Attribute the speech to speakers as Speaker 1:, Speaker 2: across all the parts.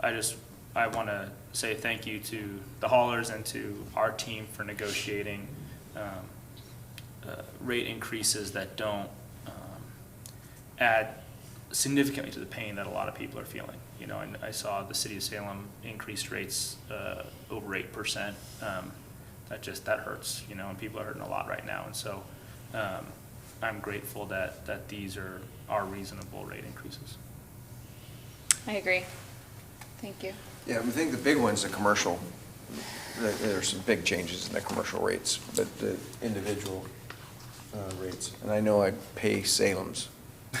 Speaker 1: I just, I want to say thank you to the haulers and to our team for negotiating um, uh, rate increases that don't um, add significantly to the pain that a lot of people are feeling. You know, and I saw the city of Salem increased rates uh, over eight percent. Um, That just, that hurts, you know, and people are hurting a lot right now. And so um, I'm grateful that, that these are, are reasonable rate increases.
Speaker 2: I agree. Thank you.
Speaker 3: Yeah, I think the big one's the commercial. There- There's some big changes in the commercial rates, but the individual uh, rates. And I know I pay Salem's.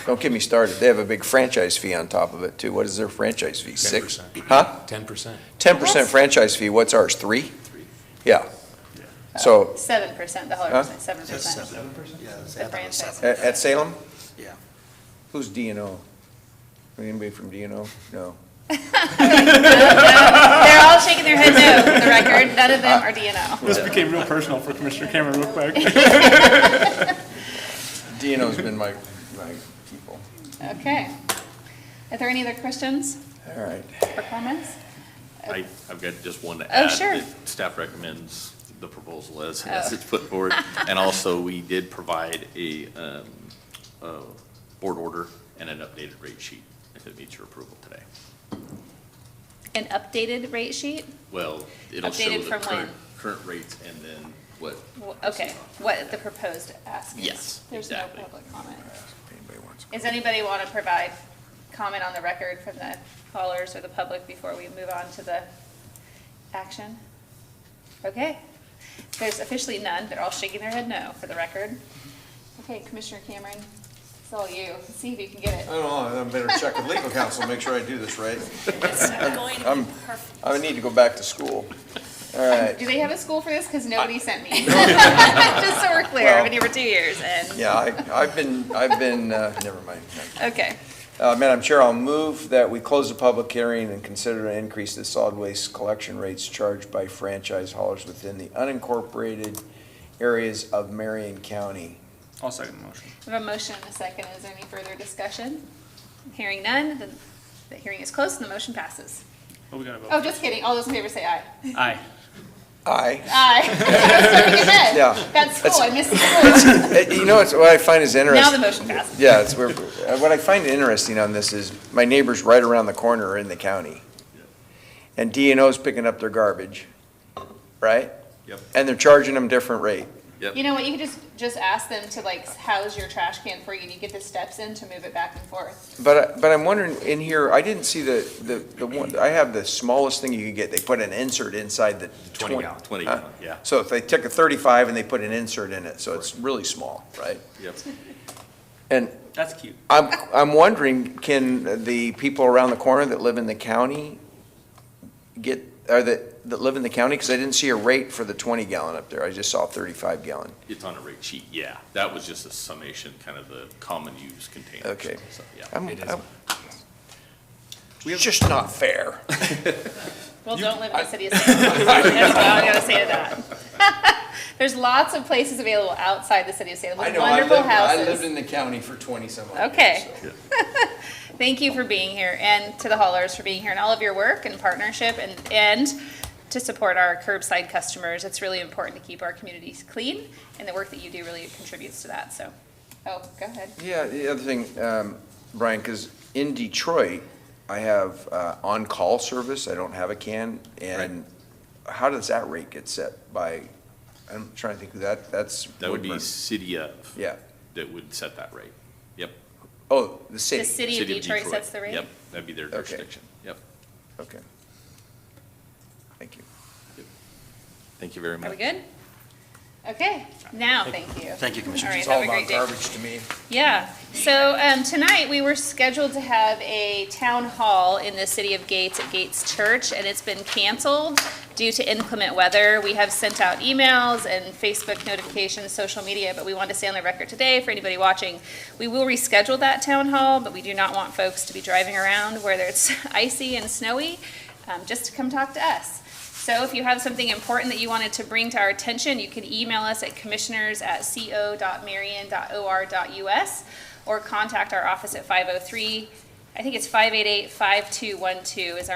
Speaker 3: Don't get me started. They have a big franchise fee on top of it, too. What is their franchise fee? Six?
Speaker 4: 10%.
Speaker 3: Huh?
Speaker 4: Ten percent.
Speaker 3: Ten percent
Speaker 2: That's-
Speaker 3: franchise fee. What's ours? Three?
Speaker 1: Three.
Speaker 3: Yeah.
Speaker 1: Yeah.
Speaker 3: So,
Speaker 2: Seven percent, the
Speaker 3: Oh. Huh?
Speaker 2: holler percent, seven percent.
Speaker 5: Seven percent? Yeah. that's
Speaker 2: The
Speaker 5: half of it,
Speaker 2: franchise.
Speaker 3: at, at Salem,
Speaker 5: seven. Yeah.
Speaker 3: who's D and O? Anybody from D and O? No.
Speaker 2: They're all shaking their head no, for the record. None of them are DNO.
Speaker 1: This became real personal for Commissioner Cameron real quick.
Speaker 3: D and O's been my, my people.
Speaker 2: Okay. Are there any other questions
Speaker 3: All right.
Speaker 2: or comments?
Speaker 6: I, I've got just one to
Speaker 2: Oh,
Speaker 6: add.
Speaker 2: sure. Oh.
Speaker 6: that Staff recommends the proposal as, as it's put forward. And also, we did provide a, um, a board order and an updated rate sheet if it meets your approval today.
Speaker 2: An updated rate sheet?
Speaker 6: Well, it'll show
Speaker 2: Updated
Speaker 6: the
Speaker 2: from when?
Speaker 6: current, current rates and then what.
Speaker 2: W- Okay, what the proposed ask is.
Speaker 6: Yes,
Speaker 2: There's no
Speaker 6: exactly.
Speaker 2: public comment.
Speaker 3: If anybody wants-
Speaker 2: Does anybody want to provide comment on the record from the callers or the public before we move on to the action? Okay. There's officially none. They're all shaking their head no for the record. Okay, Commissioner Cameron, it's all you. See if you can get
Speaker 3: I don't know, I better check with legal counsel, make sure I do this right.
Speaker 7: It's going to
Speaker 3: I'm-
Speaker 7: be perfect.
Speaker 3: I need to go back to school. All
Speaker 2: it.
Speaker 3: right,
Speaker 2: Do they have a school for this? Because nobody sent me. Just so we're clear, I've been here for two years and,
Speaker 3: yeah, I, I've been, I've been, uh, never mind.
Speaker 2: okay.
Speaker 3: Uh, Madam Chair, I'll move that we close the public hearing and consider an increase to the solid waste collection rates charged by franchise haulers within the unincorporated areas of Marion County.
Speaker 1: I'll second the motion.
Speaker 2: I have a motion and a second. Is there any further discussion? Hearing none, then the hearing is closed and the motion passes.
Speaker 1: Oh, we gotta vote.
Speaker 2: Oh, just kidding. All those in favor say aye.
Speaker 1: Aye.
Speaker 3: Aye.
Speaker 2: Aye. That's what we did.
Speaker 3: Yeah.
Speaker 2: That's
Speaker 3: That's-
Speaker 2: school. I missed school.
Speaker 3: Uh, You know, what's- what I find is interesting.
Speaker 2: Now the motion passes.
Speaker 3: Yeah, it's where, uh, what I find interesting on this is my neighbors right around the corner are in the county. And D and O's picking up their garbage, right?
Speaker 6: Yep.
Speaker 3: And they're charging them different rate.
Speaker 2: You know what? You could just, just ask them to like house your trash can for you and you get the steps in to move it back and forth.
Speaker 3: But, I- but I'm wondering, in here, I didn't see the, the, the one, I have the smallest thing you could get. They put an insert inside the twenty.
Speaker 6: gallon. Twenty
Speaker 3: huh?
Speaker 6: gallon, yeah.
Speaker 3: So if they took a thirty-five and they put an insert in it, so it's really small, right?
Speaker 6: Yep.
Speaker 3: And
Speaker 1: That's cute.
Speaker 3: I'm, I'm wondering, can the people around the corner that live in the county get, or that, that live in the county? Because I didn't see a rate for the twenty gallon up there. I just saw thirty-five gallon.
Speaker 6: It's on a rate sheet, yeah. That was just a summation, kind of the common use containers.
Speaker 3: Okay.
Speaker 6: So, yeah.
Speaker 3: I'm-
Speaker 4: It is.
Speaker 3: I'm- It's just not fair.
Speaker 2: Well, don't live in the city of Salem. That's all I gotta say to that. There's lots of places available outside the city of Salem. with Wonderful houses.
Speaker 3: the county for twenty-some
Speaker 2: years, Okay. so. Thank you for being here and to the haulers for being here and all of your work and partnership and, and to support our curbside customers. It's really important to keep our communities clean and the work that you do really contributes to that, so. Oh, go ahead.
Speaker 3: Yeah, the other thing, um, Brian, because in Detroit, I have uh, on-call service, I don't have a can, and how does that rate get set by, I'm trying to think, of that, that's.
Speaker 6: That would be
Speaker 3: Woodburn.
Speaker 6: city of,
Speaker 3: Yeah,
Speaker 6: that would set that rate. Yep.
Speaker 3: oh, the
Speaker 2: The
Speaker 3: city,
Speaker 2: city of Detroit sets the rate?
Speaker 6: Yep, that'd be their
Speaker 3: Okay.
Speaker 6: jurisdiction. Yep.
Speaker 3: okay. Thank you.
Speaker 6: Thank you very much.
Speaker 2: Are we good? Okay, now, thank you.
Speaker 5: Thank you, Commissioner.
Speaker 2: All right, have a great day.
Speaker 3: to me.
Speaker 2: Yeah, so um, tonight we were scheduled to have a town hall in the city of Gates at Gates Church, and it's been canceled due to inclement weather. We have sent out emails and Facebook notifications, social media, but we wanted to stay on the record today for anybody watching. We will reschedule that town hall, but we do not want folks to be driving around whether it's icy and snowy, um, just to come talk to us. So if you have something important that you wanted to bring to our attention, you can email us at commissioners@co.marion.or.us oh or contact our office at 503, I think it's 588-5212 is our